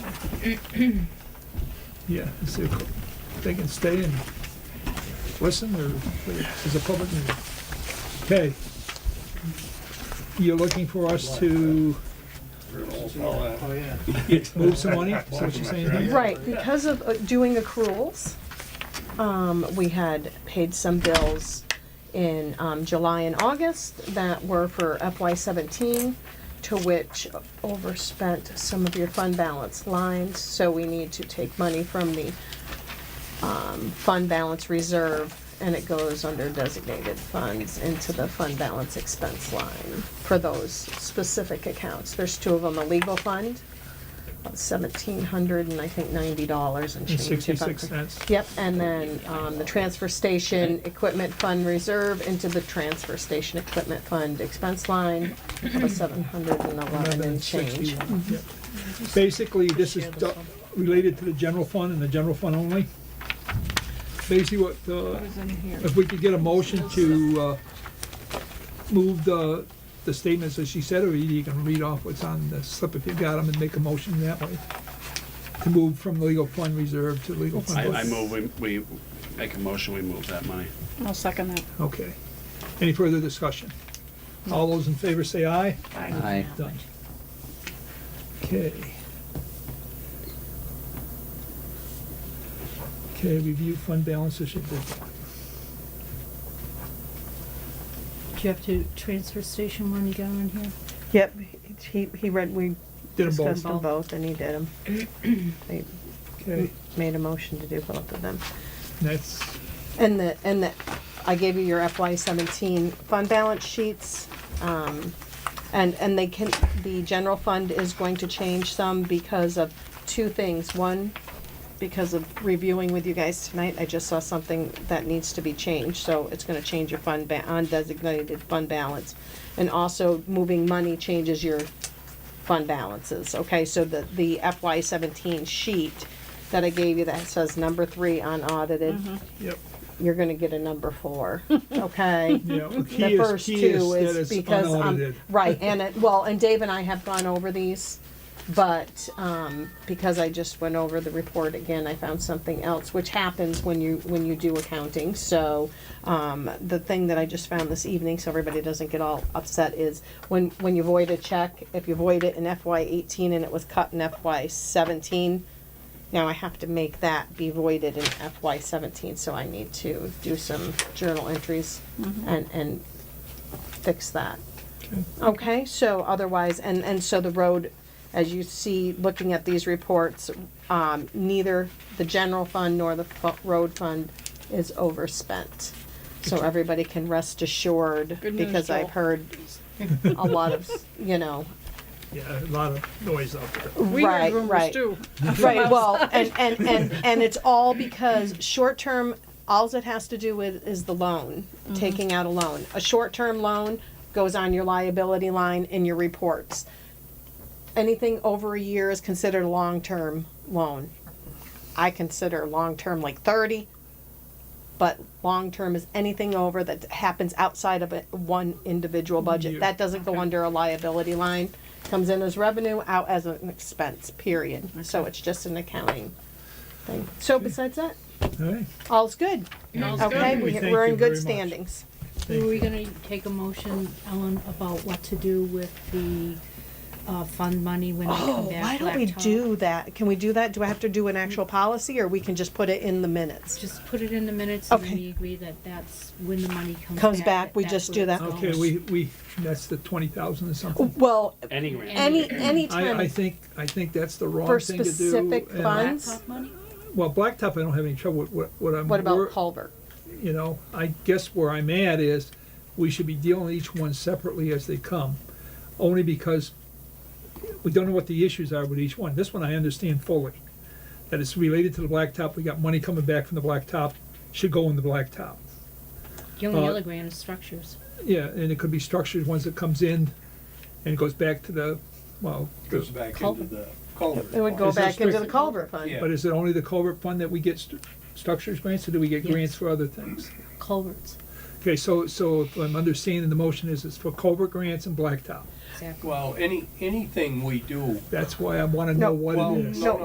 Yeah, is there, they can stay and listen, or is a public meeting? Okay. You're looking for us to Oh, yeah. move some money, is that what you're saying? here? Right, because of uh, doing accruals, um, we had paid some bills in, um, July and August that were for FY seventeen, to which overspent some of your fund balance lines, so we need to take money from the, um, fund balance reserve, and it goes under designated funds into the fund balance expense line for those specific accounts. There's two of them, a legal fund, seventeen hundred and I think ninety dollars and And change. if I'm Sixty-six correct. cents. Yep, and then, um, the transfer station equipment fund reserve into the transfer station equipment fund expense line of seven hundred and eleven and change. 1161, yeah. Basically, this is du- related to the general fund and the general fund only. Basically, what, uh, if we could get a motion to uh, move the, the statements as she said, or you can read off what's on the slip if you got them and make a motion that way. To move from legal fund reserve to legal I, fund. I move, we, we make a motion, we move that money. I'll second that. Okay. Any further discussion? All those in favor say aye. Aye. Done. Okay. Okay, review fund balance issue. Do you have to transfer station one you got on here? Yep, he, he read, we Did them both. them both and he did them. They Okay, made a motion to do both of them. that's, And the, and the, I gave you your FY seventeen fund balance sheets. um, And, and they can, the general fund is going to change some because of two things. One, because of reviewing with you guys tonight, I just saw something that needs to be changed, so it's gonna change your fund ba- undesignated fund balance. And also, moving money changes your fund balances, okay? So the, the FY seventeen sheet that I gave you that says number three unaudited, yep, you're gonna get a number four, okay? yeah. well, key The is- first key is two that is it's because, um, unaudited. right, and it, well, and Dave and I have gone over these, but, um, because I just went over the report again, I found something else, which happens when you, when you do accounting, so, um, the thing that I just found this evening, so everybody doesn't get all upset, is when, when you void a check, if you void it in FY eighteen and it was cut in FY seventeen, now I have to make that be voided in FY seventeen, so I need to do some journal entries Mm-hmm. and, and fix that. Okay, so otherwise, and, and so the road, as you see, looking at these reports, um, neither the general fund nor the fu- road fund is overspent. So everybody can rest assured, Good news, because I've Joel. heard a lot of, you know, Yeah, a lot of noise out there. We heard Right, rumors right. too. Right, well, and, and, and, and it's all because short-term, alls it has to do with is the loan, taking out a loan. A short-term loan goes on your liability line in your reports. Anything over a year is considered a long-term loan. I consider long-term like thirty, but long-term is anything over that happens outside of a, one individual Year. budget. That doesn't go under a liability line, comes in as revenue, out as an expense, period. So it's just an accounting thing. So besides that, All right, all's good. Okay, We thank we- we're you in very good much. standings. thank Were we you. gonna take a motion, Ellen, about what to do with the, uh, fund money when we Oh, come back? laptop? that? Can we do that? Do I have to do an actual policy or we can just put it in the minutes? Just put it in the minutes and Okay. we agree that that's when the money comes back. Comes back, we that's just what do it's that. Okay, all- we, we, that's the twenty thousand or something. Well, Any grant. any, any I, I time think, I think that's the wrong for thing to do. specific and- funds. Laptop money? Well, blacktop, I don't have any trouble with, what, what I'm. what about wor- Culver? you know, I guess where I'm at is, we should be dealing with each one separately as they come, only because we don't know what the issues are with each one. This one I understand fully, that it's related to the blacktop, we got money coming back from the blacktop, should go in the blacktop. The only Uh, other grant is structures. Yeah, and it could be structured, ones that comes in and goes back to the, well, Goes back into Culvert. the culvert. It would go Is there back into the strict- Culver fund. Yeah. but is it only the culvert fund that we get stru- structures grants, or do we get Yes. grants for other things? culverts, Okay, so, so if I'm understanding the motion is it's for culvert grants and blacktop. exactly. Well, any, anything we do, That's why I wanna know No. what well, it is. no,